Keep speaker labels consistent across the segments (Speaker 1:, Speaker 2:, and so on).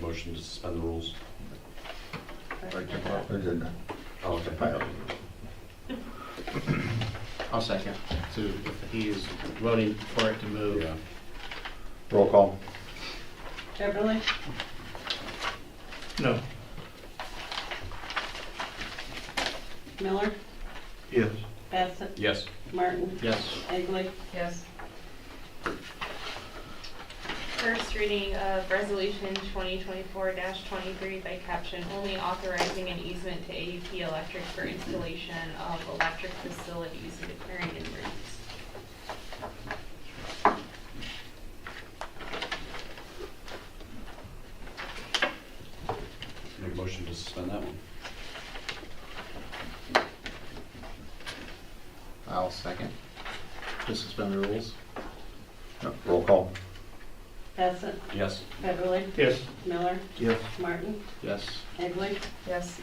Speaker 1: motion to suspend the rules?
Speaker 2: agenda.
Speaker 1: Oh, okay.
Speaker 3: I'll second. So if he is voting for it to move.
Speaker 1: Yeah.
Speaker 2: Roll call.
Speaker 4: Beverly?
Speaker 3: No.
Speaker 4: Miller?
Speaker 5: Yes.
Speaker 4: Bassett?
Speaker 1: Yes.
Speaker 4: Martin?
Speaker 3: Yes.
Speaker 4: Egley?
Speaker 6: Yes.
Speaker 7: First reading of resolution twenty twenty-four twenty-three by caption only authorizing an easement to AEP Electric for installation of electric facilities and declaring an emergency.
Speaker 1: Make a motion to suspend that one?
Speaker 3: I'll second. To suspend the rules.
Speaker 2: No, Roll call.
Speaker 4: Bassett?
Speaker 1: Yes.
Speaker 4: Beverly?
Speaker 5: Yes.
Speaker 4: Miller?
Speaker 5: Yes.
Speaker 4: Martin?
Speaker 3: Yes.
Speaker 4: Egley?
Speaker 6: Yes.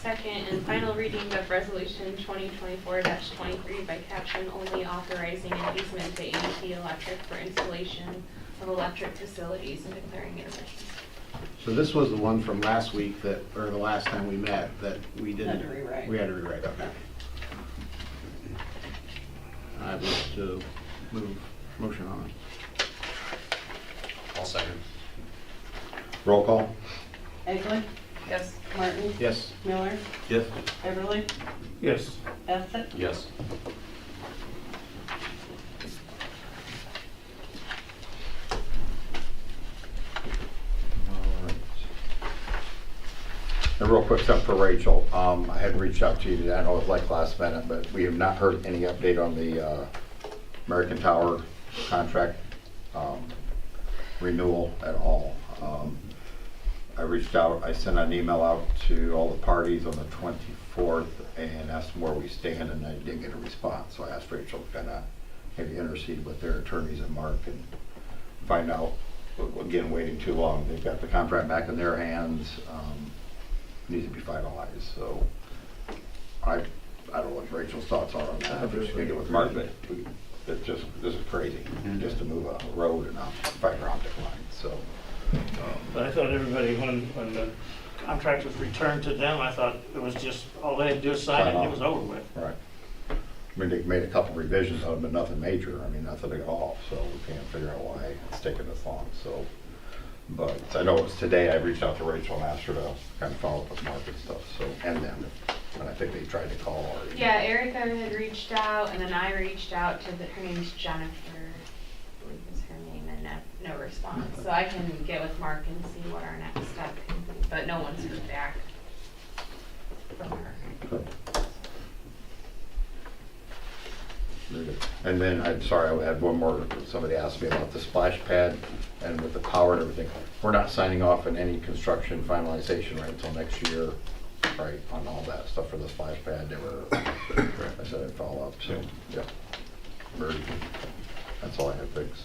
Speaker 7: Second and final reading of resolution twenty twenty-four twenty-three by caption only authorizing an easement to AEP Electric for installation of electric facilities and declaring an emergency.
Speaker 3: So this was the one from last week that, or the last time we met, that we didn't.
Speaker 4: Had to rewrite.
Speaker 3: We had to rewrite, okay. I wish to move, motion on.
Speaker 1: I'll second.
Speaker 2: Roll call.
Speaker 4: Egley?
Speaker 6: Yes.
Speaker 4: Martin?
Speaker 3: Yes.
Speaker 4: Miller?
Speaker 5: Yes.
Speaker 4: Beverly?
Speaker 5: Yes.
Speaker 4: Bassett?
Speaker 1: Yes.
Speaker 2: And real quick, stuff for Rachel, um, I had reached out to you, today. I know it was like last minute, but we have not heard any update on the, uh, American Tower contract, um, renewal at all. Um, I reached out, I sent an email out to all the parties on the twenty-fourth and asked them where we stand, and I didn't get a response, so I asked Rachel to kinda maybe intercede with their attorneys and Mark and find out, again, waiting too long, they've got the contract back in their hands, um, needs to be finalized, so I, I don't know what Rachel's thoughts are on that, if she's gonna get with Mark, but we- it's just, this is crazy, just to move a road and a fiber optic line, so.
Speaker 5: But I thought everybody, when, when the contract was returned to them, I thought it was just, all they had to do is sign it, and it was over with.
Speaker 2: Right. I mean, they made a couple revisions on it, but nothing major, I mean, nothing at all, so we can't figure out why it's taking this long, so. But I know it was today, I reached out to Rachel and asked her to kind of follow up with Mark and stuff, so, and them, and I think they tried to call already.
Speaker 7: Yeah, Erica had reached out, and then I reached out to the, her name's Jennifer, I believe is her name, and no, no response. So I can get with Mark and see what our next step can be, but no one's heard back from her.
Speaker 2: Very good. And then, I'm sorry, I had one more, somebody asked me about the splash pad and with the power and everything. We're not signing off on any construction finalization right until next year, right, on all that stuff for the splash pad, they were, I said I'd follow up, so, yeah. Very good. That's all I have, thanks.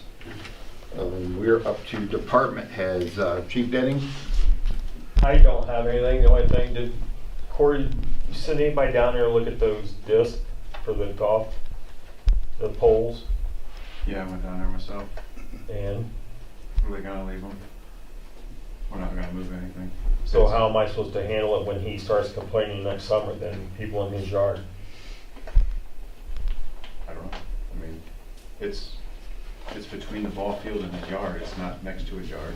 Speaker 2: Um, We're up to department heads, Uh, Chief Denning?
Speaker 8: I don't have anything, the only thing, did Corey, you send anybody down there to look at those discs for the golf, the poles,
Speaker 9: Yeah, I went down there myself.
Speaker 8: and
Speaker 9: Are they gonna leave them? We're not gonna move anything.
Speaker 8: so how am I supposed to handle it when he starts complaining next summer, then people in his yard?
Speaker 9: I don't know. I mean, it's, it's between the ball field and the yard. It's not next to a yard.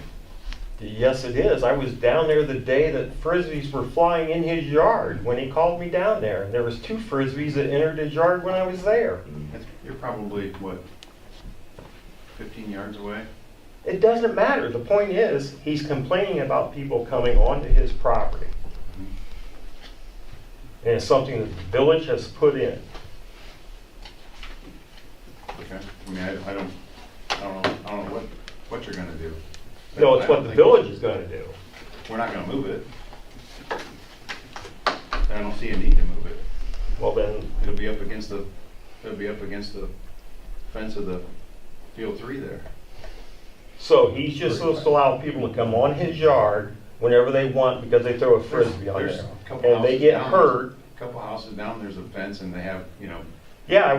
Speaker 8: Yes, it is, I was down there the day that frisbees were flying in his yard, when he called me down there, and there was two frisbees that entered his yard when I was there.
Speaker 9: It's, you're probably, what, fifteen yards away?
Speaker 8: It doesn't matter, the point is, he's complaining about people coming onto his property.
Speaker 9: Mm-hmm.
Speaker 8: And it's something that the village has put in.
Speaker 9: Okay? I mean, I, I don't, I don't know, I don't know what, what you're gonna do.
Speaker 8: No, it's
Speaker 9: I
Speaker 8: what
Speaker 9: don't
Speaker 8: the
Speaker 9: think-
Speaker 8: village is gonna do.
Speaker 9: We're not gonna move it. I don't see a need to move it.
Speaker 8: Well, then,
Speaker 9: It'll be up against the, it'll be up against the fence of the field three there.
Speaker 8: so he's just supposed to allow people to come on his yard whenever they want because they throw a frisbee on
Speaker 9: There's
Speaker 8: there.
Speaker 9: a couple
Speaker 8: And they
Speaker 9: houses
Speaker 8: get
Speaker 9: down.
Speaker 8: hurt.
Speaker 9: Couple houses down, there's a fence and they have, you know,
Speaker 8: Yeah, I